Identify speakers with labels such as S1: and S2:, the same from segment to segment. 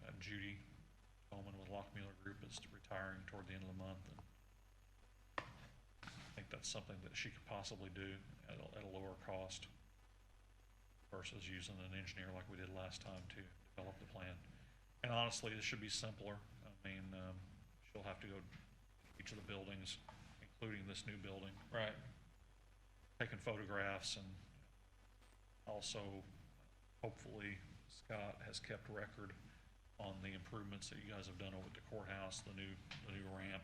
S1: Uh, Lockmuller Group is retiring toward the end of the month. and I think that's something that she could possibly do at a, at a lower cost versus using an engineer like we did last time to develop the plan. And honestly, this should be simpler. I mean, um, she'll have to go each of the buildings, including this new building. Right. Taking photographs and also hopefully Scott has kept record on the improvements that you guys have done over at the courthouse, the new, the new ramp,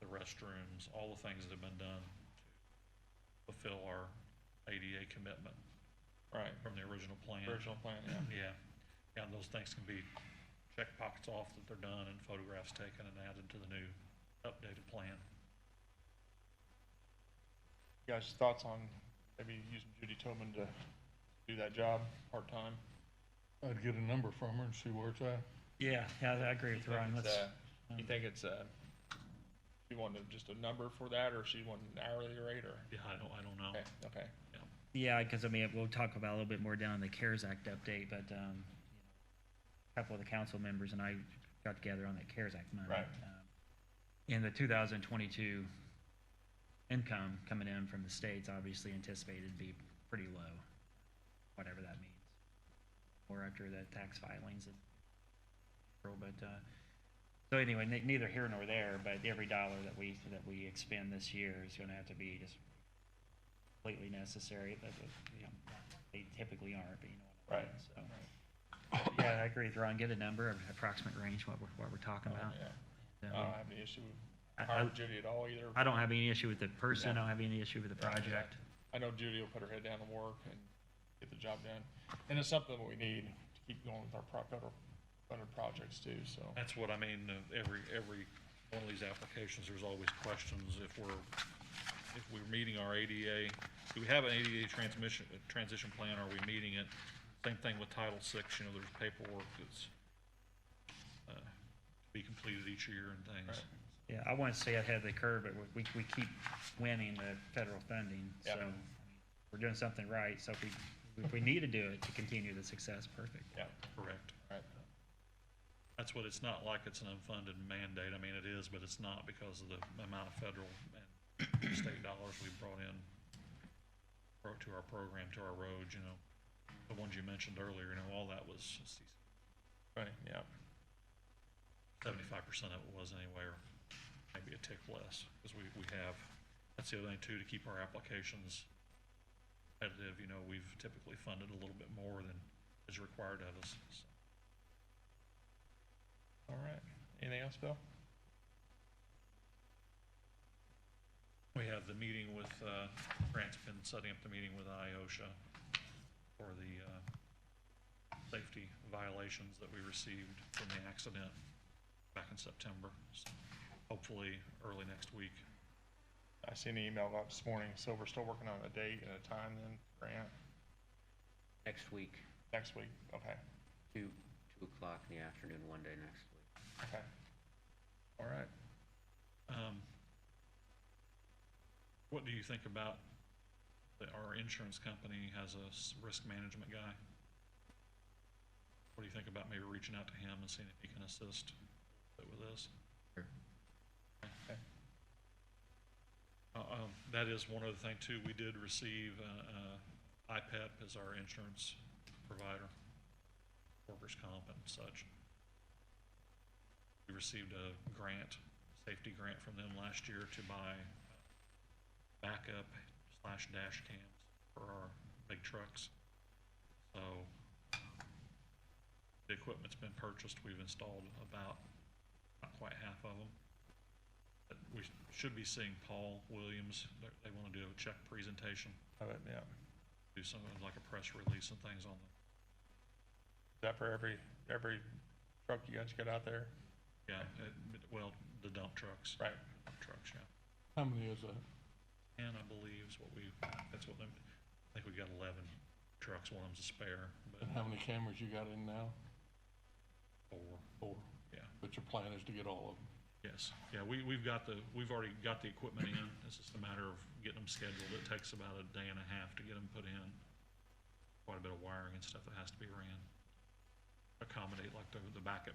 S1: the restrooms, all the things that have been done to fulfill our ADA commitment
S2: Right,
S1: from the original plan.
S2: original plan, yeah.
S1: Yeah, yeah, and those things can be check pockets off that they're done and photographs taken and added to the new updated plan.
S2: You guys' thoughts on maybe using Judy Tobin to do that job part-time?
S3: I'd get a number from her and see where it's at.
S4: Yeah, yeah, I agree with
S2: You think
S4: Ryan.
S2: it's,
S4: Let's,
S2: uh, You think it's, uh, you want to- just a number for that, or she want an hourly rate, or?
S1: Yeah, I don't, I don't know.
S2: Okay, okay.
S4: yeah, because I mean, we'll talk about it a little bit more down in the CARES Act update, but um, a couple of the council members and I got together on that CARES Act money.
S2: Right.
S4: Um, And the 2022 income coming in from the states obviously anticipated to be pretty low, whatever that means. Or after the tax filings in April, but uh, so anyway, ne- neither here nor there, but every dollar that we, that we expend this year is going to have to be just completely necessary, but, uh, you know, they typically aren't, but you know what I mean,
S2: Right.
S4: so. Yeah, I agree with Ron. Get a number, an approximate range, what we're, what we're talking
S2: Oh,
S4: about.
S2: Yeah. I
S4: And,
S2: don't
S4: um,
S2: have any issue with
S4: I-
S2: hiring
S4: I-
S2: Judy at all either.
S4: I don't have any issue with the person,
S2: Yeah.
S4: I don't have any issue with the project.
S2: I know Judy will put her head down and work and get the job done. And it's something that we need to keep going with our pro- federal funded projects too, so.
S1: That's what I mean, uh, every, every one of these applications, there's always questions if we're, if we're meeting our ADA. Do we have an ADA transmission, uh, transition plan? Are we meeting it? Same thing with Title VI, you know, there's paperwork that's uh, to be completed each year and things.
S2: Right.
S4: Yeah, I want to stay ahead of the curve, but we, we keep winning the federal funding, so
S2: Yeah.
S4: we're doing something right, so if we, if we need to do it to continue the success, perfect.
S2: Yeah,
S1: Correct.
S2: right.
S1: That's what, it's not like it's an unfunded mandate. I mean, it is, but it's not because of the amount of federal and state dollars we brought in pro- to our program, to our roads, you know. The ones you mentioned earlier, you know, all that was,
S2: Right, yeah.
S1: seventy-five percent of it was anyway, or maybe a tick less, because we, we have, that's the other thing too, to keep our applications competitive, you know, we've typically funded a little bit more than is required of us, so.
S2: All right. Anything else, Bill?
S1: We have the meeting with, uh, Grant's been setting up the meeting with IOSHA for the, uh, safety violations that we received from the accident back in September. So Hopefully, early next week.
S2: I seen an email about this morning, so we're still working on a date and a time then, Grant,
S5: next week,
S2: next week, okay,
S5: two, two o'clock in the afternoon, one day next week.
S2: okay. All right,
S1: Um, what do you think about that our insurance company has a s- risk management guy? What do you think about maybe reaching out to him and seeing if he can assist with this?
S2: okay,
S1: Uh, um, That is one other thing too, we did receive uh, uh, IPEP as our insurance provider, workers' comp and such. We received a grant, safety grant from them last year to buy backup slash dash cams for our big trucks. So um, the equipment's been purchased, we've installed about, not quite half of them that we should be seeing Paul Williams. They're- They want to do a check presentation,
S2: Have it, yeah. Is
S1: do something like a press release and things on the,
S2: that for every, every truck you guys get out there?
S1: yeah, it- it- well, the dump trucks.
S2: Right.
S1: Dump Trucks, yeah.
S3: How many is that?
S1: And I believe is what we, that's what, them- I think we got 11 trucks, one of them's a spare,
S3: And
S1: but
S3: how many cameras you got in now?
S1: four,
S3: Four.
S1: yeah,
S3: But your plan is to get all of them?
S1: yes. Yeah, we, we've got the, we've already got the equipment in. It's just a matter of getting them scheduled. It takes about a day and a half to get them put in. Quite a bit of wiring and stuff that has to be ran. Accommodate like the, the backup